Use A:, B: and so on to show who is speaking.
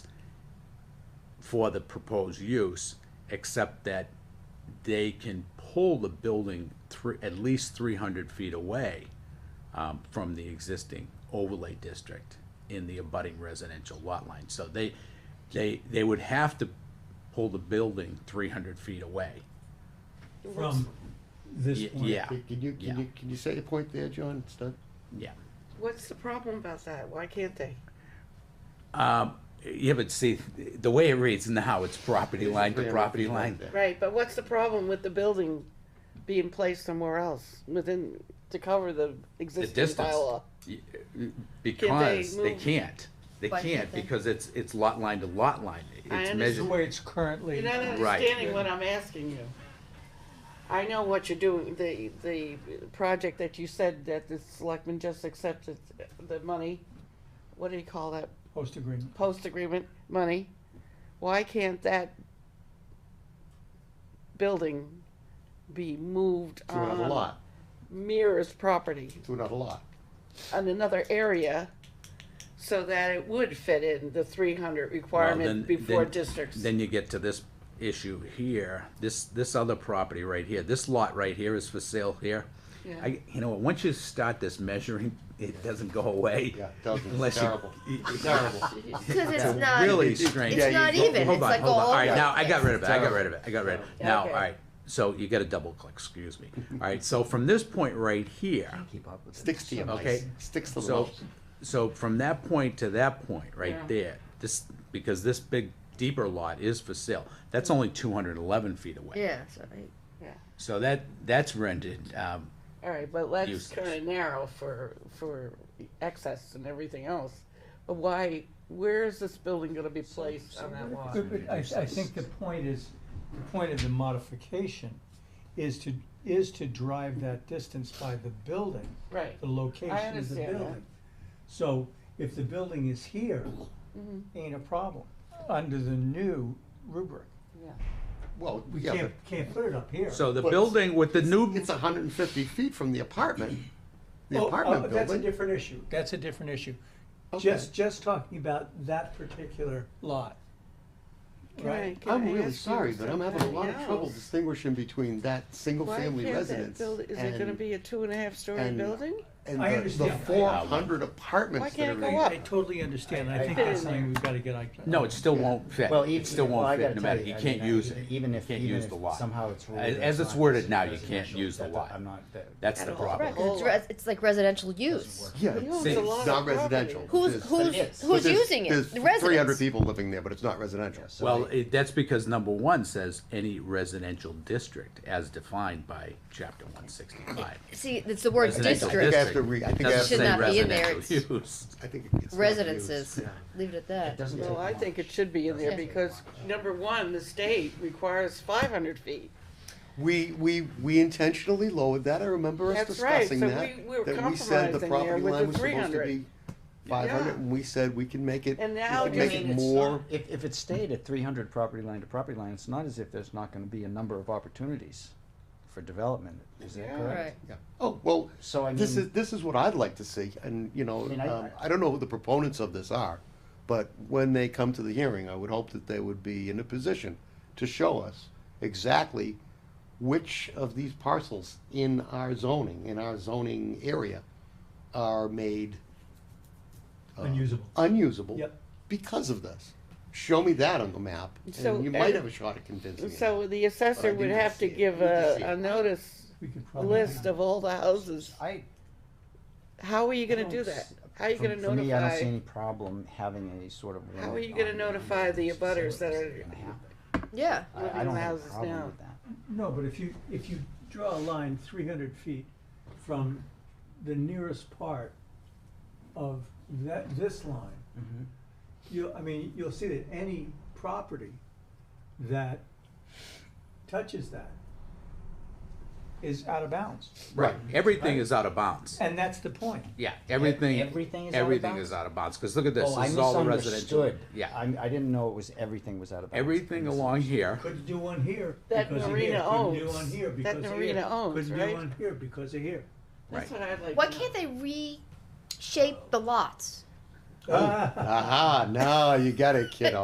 A: for the proposed use, except that they can pull the building three, at least three hundred feet away um, from the existing overlay district in the abutting residential lot line. So they, they, they would have to pull the building three hundred feet away.
B: from this
A: Y-
B: point.
A: Yeah,
C: Can can you,
A: yeah.
C: can you, can you say a point there, John? It's not-
A: yeah.
D: What's the problem about that? Why can't they?
A: Yeah, but see, the way it reads now, it's property line to property line.
D: Right, but what's the problem with the building being placed somewhere else within, to cover the
A: The
D: existing
A: distance,
D: bylaw?
A: y- uh, because they
D: move-
A: can't, they
E: Why can't
A: can't,
E: they?
A: because it's, it's lot line to lot line.
D: I
A: It's
B: The
A: measured.
B: way it's currently.
D: You're not
A: Right.
D: understanding what I'm asking you. I know what you're doing, the, the project that you said that the selectmen just accepted the money, what do you call that,
B: Post agreement.
D: post-agreement money? Why can't that building be moved
C: To another
D: on
C: lot,
D: Mira's property?
C: to another lot.
D: on another area so that it would fit in the three hundred
A: Well,
D: requirement
A: then-
D: before
A: then-
D: districts.
A: Then you get to this issue here, this, this other property right here, this lot right here is for sale here.
D: Yeah.
A: I, you know, once you start this measuring, it doesn't go away.
C: Yeah, it doesn't. It's
A: unless you-
C: terrible.
A: It's
C: Terrible.
E: Because it's not,
A: Really
E: it's
A: strange.
C: Yeah, you-
E: not
C: hold-
E: even, it's
A: Hold on,
E: like
A: hold on.
E: all
A: All right,
E: over
A: now,
E: the
A: I got
E: place.
A: rid of it, I got rid of it, I got rid of it.
D: Yeah,
A: Now, all
D: okay.
A: right, so you gotta double click, excuse me. All right, so from this point right here,
C: Sticks to your
A: Okay.
C: mice, sticks to the
A: so,
C: mouse.
A: so from that point to that point,
D: Yeah.
A: right there, this, because this big deeper lot is for sale, that's only two hundred and eleven feet away.
E: Yeah, so I-
D: Yeah.
A: So that, that's rented, um,
D: All right, but let's
A: Useless.
D: kinda narrow for, for excess and everything else. But why, where is this building gonna be placed on that lot?
B: But- but I, I think the point is, the point of the modification is to, is to drive that distance by the building,
D: Right,
B: the location of the
D: understand that.
B: building. So if the building is here, ain't a problem, under the new rubric.
D: yeah.
C: Well,
B: We
C: yeah,
B: can't, can't put it up here.
A: so the
C: But-
A: building with the
C: but
A: new,
C: it's hundred and fifty feet from the apartment, the
B: Oh,
C: apartment
B: oh, That's a
C: building.
B: different issue, that's a different issue.
C: Okay.
B: Just, just talking about that particular lot.
D: Can I-
B: Right?
D: can I
C: I'm really
D: ask you
C: sorry, but I'm having a lot of
D: something
C: trouble
D: else?
C: distinguishing between that single-family
D: Why can't that
C: residence
D: build-
C: and.
D: Is it gonna be a two and a half story
C: and-
D: building?
C: And
B: I
C: the- the
B: understand.
C: four
A: I-
C: hundred
D: Why
C: apartments that
D: can't
C: are
D: it
C: in.
D: go
B: I,
D: up?
B: I totally understand, I think
D: fit
B: that's
D: in
B: something
D: there.
B: we've gotta get, on.
A: no, it still won't fit,
F: Well,
A: it
F: even-
A: still
F: well, I
A: won't fit,
F: gotta
A: no
F: tell
A: matter,
F: you,
A: you
F: I
A: can't
F: mean,
A: use
F: I-
A: it.
F: Even if,
A: You can't
F: even
A: use
F: if
A: the lot.
F: somehow it's ruled.
A: As-
F: that
A: as it's
F: not
A: worded now, you can't
F: residential,
A: use the
F: that-
A: lot.
F: I'm not, that.
A: That's the
D: At all.
A: problem.
D: Right.
E: because it's res- it's like residential use.
C: Yeah,
D: He owns
C: it's
D: a
A: it's
D: lot of
C: not
D: property.
C: residential.
F: is.
E: Who's, who's,
F: But
E: who's using it? The residents.
C: Three hundred people living there, but it's not residential.
F: So
A: Well,
F: they-
A: it, that's because number one says any residential district as defined by chapter one sixty-five.
E: See, it's the word
A: Residential
C: I
E: district,
C: have to re- I think I have
A: Doesn't
C: to.
E: Should
A: say
E: not be in there,
A: residential use.
C: I think it's not used.
E: residences,
C: Yeah.
E: leave it at
F: It
E: that.
F: doesn't take
D: Well, I
F: much.
D: think it should be in there
E: Yeah.
D: because, number one, the state requires five hundred feet.
C: We, we, we intentionally lowered that, I remember us
D: That's right,
C: discussing
D: so
C: that.
D: we- we were
C: That we said the
D: compromising there
C: property
D: with
C: line
D: the
C: was supposed to
D: 300.
C: be five
D: Yeah.
C: hundred, and we said we can make it,
D: And now
C: we
D: do
C: can
D: you
C: make
D: mean
C: it
D: it's
C: more.
F: If, if it stayed at three hundred property line to property line, it's not as if there's not gonna be a number of opportunities for development, is that
D: Yeah.
F: correct?
E: Right.
C: Yeah. Oh, well,
F: So I
C: this
F: mean-
C: is, this is what I'd like to see, and, you know,
F: I mean, I-
C: um, I don't know who the proponents of this are, but when they come to the hearing, I would hope that they would be in a position to show us exactly which of these parcels in our zoning, in our zoning area, are made uh,
B: Unusable.
C: unusable
B: Yep.
C: because of this. Show me that on the map,
D: So,
C: and you might
D: uh,
C: have a shot at convincing me.
D: So the assessor
C: But I
D: would
C: do not
D: have to
C: see it.
D: give
C: We need to
D: a,
C: see
D: a
C: it.
D: notice,
B: We could
D: a
B: probably.
D: list of all the houses.
F: Oh, I.
D: How are you gonna do
F: don't
D: that?
F: s-
D: How are you
F: for-
D: gonna
F: For me, I don't see
D: notify,
F: any problem having a sort of.
D: How are
F: warrant
D: you gonna
F: on
D: notify
F: numbers
D: the
F: to say
D: abutters that
F: what's
D: are
F: gonna happen.
E: Yeah,
F: I-
D: living
F: I don't have a
D: houses now?
F: problem with that.
B: No, but if you, if you draw a line three hundred feet from the nearest part of that, this line, you, I mean, you'll see that any property that touches that is out of bounds.
A: Right, everything is out of bounds.
B: And that's the point.
A: Yeah, everything,
F: everything is out of
A: everything
F: bounds?
A: is out of bounds, because look at this,
F: Oh, I
A: this is all the residential.
F: misunderstood.
A: Yeah,
F: I, I didn't know it was, everything was out of bounds.
A: everything along here,
B: Couldn't do one here
D: That
B: because of
D: Norena
B: here, couldn't do
D: owns.
B: one here
D: That
B: because of here.
D: Norena owns,
B: Couldn't do
D: right?
B: one here because of here.
A: right.
D: That's what I'd like.
E: why
D: to know.
E: can't they reshape the lots?
B: Ah.
C: Aha, now you got it, kiddo.